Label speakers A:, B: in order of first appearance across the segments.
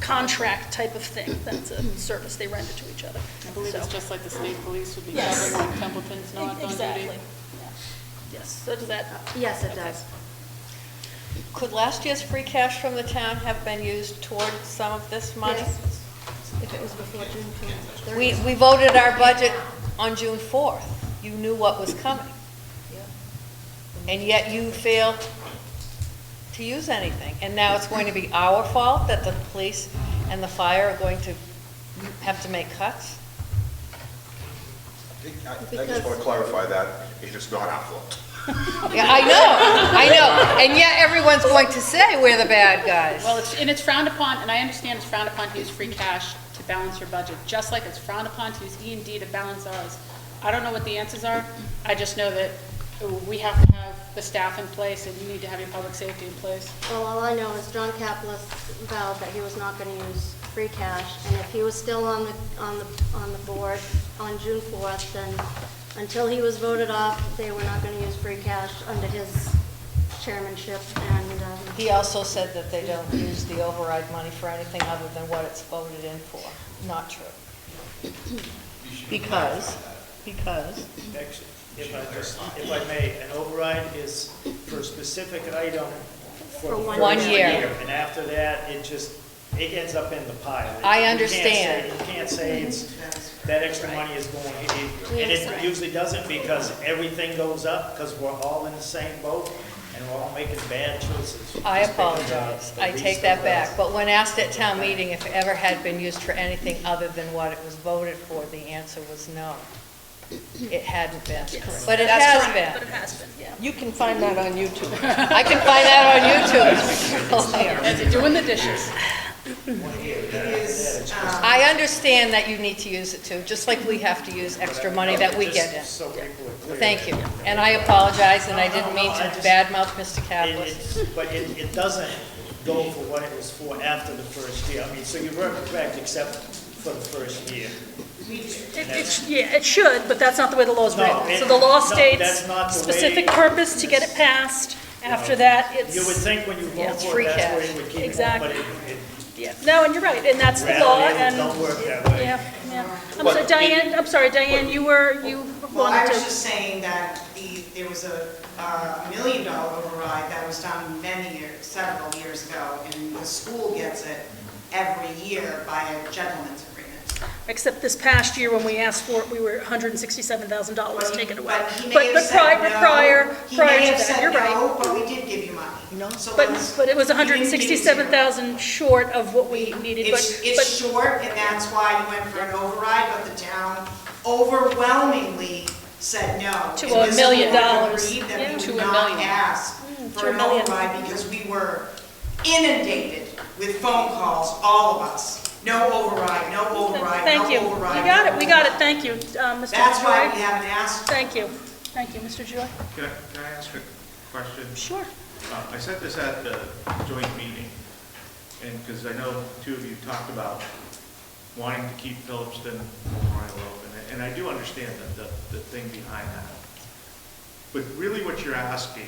A: contract type of thing. That's a service they render to each other.
B: I believe it's
A: So-
B: just like the state police would be
A: Yes.
B: covering when Templeton's not on duty.
A: Exactly, yeah. Yes, so does that,
C: Yes, it
A: Okay.
C: does.
D: Could last year's free cash from the town have been used toward some of this money?
C: Yes. If it was before June
D: We,
C: 30th.
D: we voted our budget on June 4th. You knew what was coming, and yet you failed to use anything. And now it's going to be our fault that the police and the fire are going to have to make cuts?
E: I I just want to clarify that, it's just not our fault.
D: Yeah, I know, I know. And yet everyone's going to say we're the bad guys.
B: Well, it's, and it's frowned upon, and I understand it's frowned upon to use free cash to balance your budget, just like it's frowned upon to use E and D to balance ours. I don't know what the answers are, I just know that we have to have the staff in place, and you need to have your public safety in place.
C: Well, all I know is John Caplis vowed that he was not going to use free cash, and if he was still on the, on the, on the board on June 4th, then until he was voted off, they were not going to use free cash under his chairmanship, and, um,
D: He also said that they don't use the override money for anything other than what it's voted in for. Not true. Because, because,
F: Actually, If I just, if I may, an override is for a specific item
C: For
F: for the
C: one
F: first
D: year.
F: And after that, it just, it ends up in the pile.
D: I
F: You can't
D: understand.
F: say- You can't say it's, that extra money is going, it- it-
C: We
F: and
C: understand.
F: it usually doesn't because everything goes up, because we're all in the same boat, and we're all making bad choices.
D: I
F: Just picking jobs,
D: apologize,
F: the
D: I
F: least
D: take that
F: of
D: back.
F: us.
D: But when asked at town meeting if it ever had been used for anything other than what it was voted for, the answer was no. It hadn't been.
A: Yes.
D: But it
A: That's
D: has
A: correct, But
D: been.
A: it has been, yeah.
G: You can find that on YouTube.
D: I can find that on YouTube. It's there.
B: As you're doing the dishes.
D: I understand that you need to use it too, just like we have to use extra money that we get in.
F: Just So people are clear.
D: Thank you, and I apologize, and I didn't mean
F: No, no, no, I
D: to
F: just-
D: badmouth Mr.
F: It-
D: Caplis.
F: it's- But it, it doesn't go for what it was for after the first year. I mean, so you were correct, except for the first year.
A: It- It's, yeah, it should, but that's not the way the law is
F: No,
A: written.
F: it-
A: So the law
F: no,
A: states
F: that's not the
A: specific
F: way-
A: purpose to get it passed. After that, it's.
F: You would think when you
A: Yeah,
F: vote
A: it's
F: for
D: free
F: it, that's where
D: cash.
F: you would keep it, but
A: Exactly.
F: it, it
A: Yeah, no, and you're right, and that's the law,
F: reality, it
A: and,
F: don't work that way.
A: yeah, yeah. I'm sorry, Diane, I'm sorry, Diane, you were, you
H: Well, I
A: wanted
H: was
A: to,
H: just saying that the, there was a uh, million dollar override that was done many years, several years ago, and the school gets it every year by a gentleman's agreement.
A: except this past year when we asked for it, we were $167,000 taken away.
H: But he
A: But,
H: may have
A: but prior,
H: said
A: but
H: no.
A: prior,
H: He
A: prior
H: may have
A: to that,
H: said
A: you're right.
H: no, but we did give you money. No.
A: But, but it was 167,000 short of what we needed,
H: It's,
A: but,
H: it's
A: but,
H: short, and that's why you went for an override, but the town overwhelmingly said no.
A: To
H: And
A: a
H: this
A: million
H: board
A: dollars.
H: Agreed
A: Yeah.
H: that we
B: To
H: would
B: a
H: not
B: million.
H: ask
A: Mm, to
H: for
A: a
H: an
A: million.
H: override because we were inundated with phone calls, all of us. No override, no override, no
A: thank you. We
H: override.
A: got
H: no
A: it, we got it,
H: override.
A: thank you, uh, Mr.
H: That's why we
A: Joy.
H: haven't asked.
A: Thank you, thank you, Mr. Joy.
I: Can I, can I ask a question?
A: Sure.
I: Uh, I said this at the joint meeting, and, because I know two of you talked about wanting to keep Phillipston Memorial open, and I do understand the, the, the thing behind that. But really what you're asking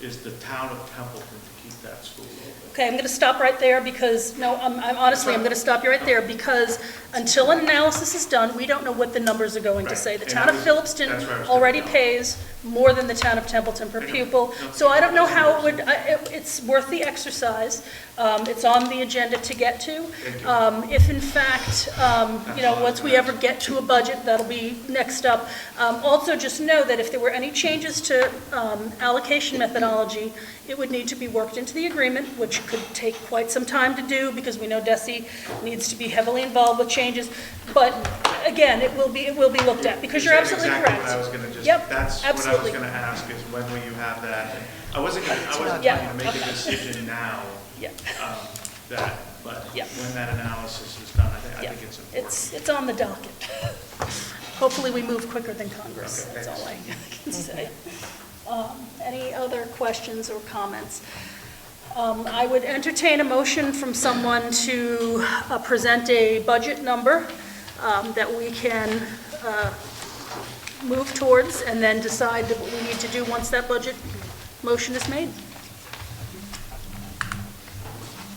I: is the town of Templeton to keep that school open.
A: Okay, I'm going to stop right there because, no, I'm I'm honestly, I'm going to stop you right there because until an analysis is done, we don't know what the numbers are going to
I: Right,
A: say. The
I: and
A: town
I: that
A: of
I: was-
A: Phillipston
I: that's where I was gonna
A: already
I: go.
A: pays more than the town of Templeton per
I: I know.
A: pupil,
I: No.
A: so I don't know how it would, I- it- it's worth the exercise. Um, It's on the agenda to get to.
I: Thank you.
A: Um, If in fact, um, you know, once we ever get to a budget, that'll be next up. Um, Also, just know that if there were any changes to um, allocation methodology, it would need to be worked into the agreement, which could take quite some time to do, because we know Desi needs to be heavily involved with changes. But again, it will be, it will be looked at, because you're
I: said
A: absolutely correct.
I: Exactly what I was gonna just,
A: Yep,
I: that's what I was
A: absolutely.
I: gonna ask, is when will you have that? And I wasn't, gonna- I wasn't
A: Yeah,
I: planning to make a decision now,
A: Yeah.
I: um, that, but
A: Yeah.
I: when that analysis is done, I think, I
A: Yeah.
I: think it's important.
A: It's, it's on the docket. Hopefully, we move quicker than Congress, that's all I can say. Um, Any other questions or comments? Um, I would entertain a motion from someone to uh, present a budget number um, that we can uh, move towards and then decide that what we need to do once that budget motion is made.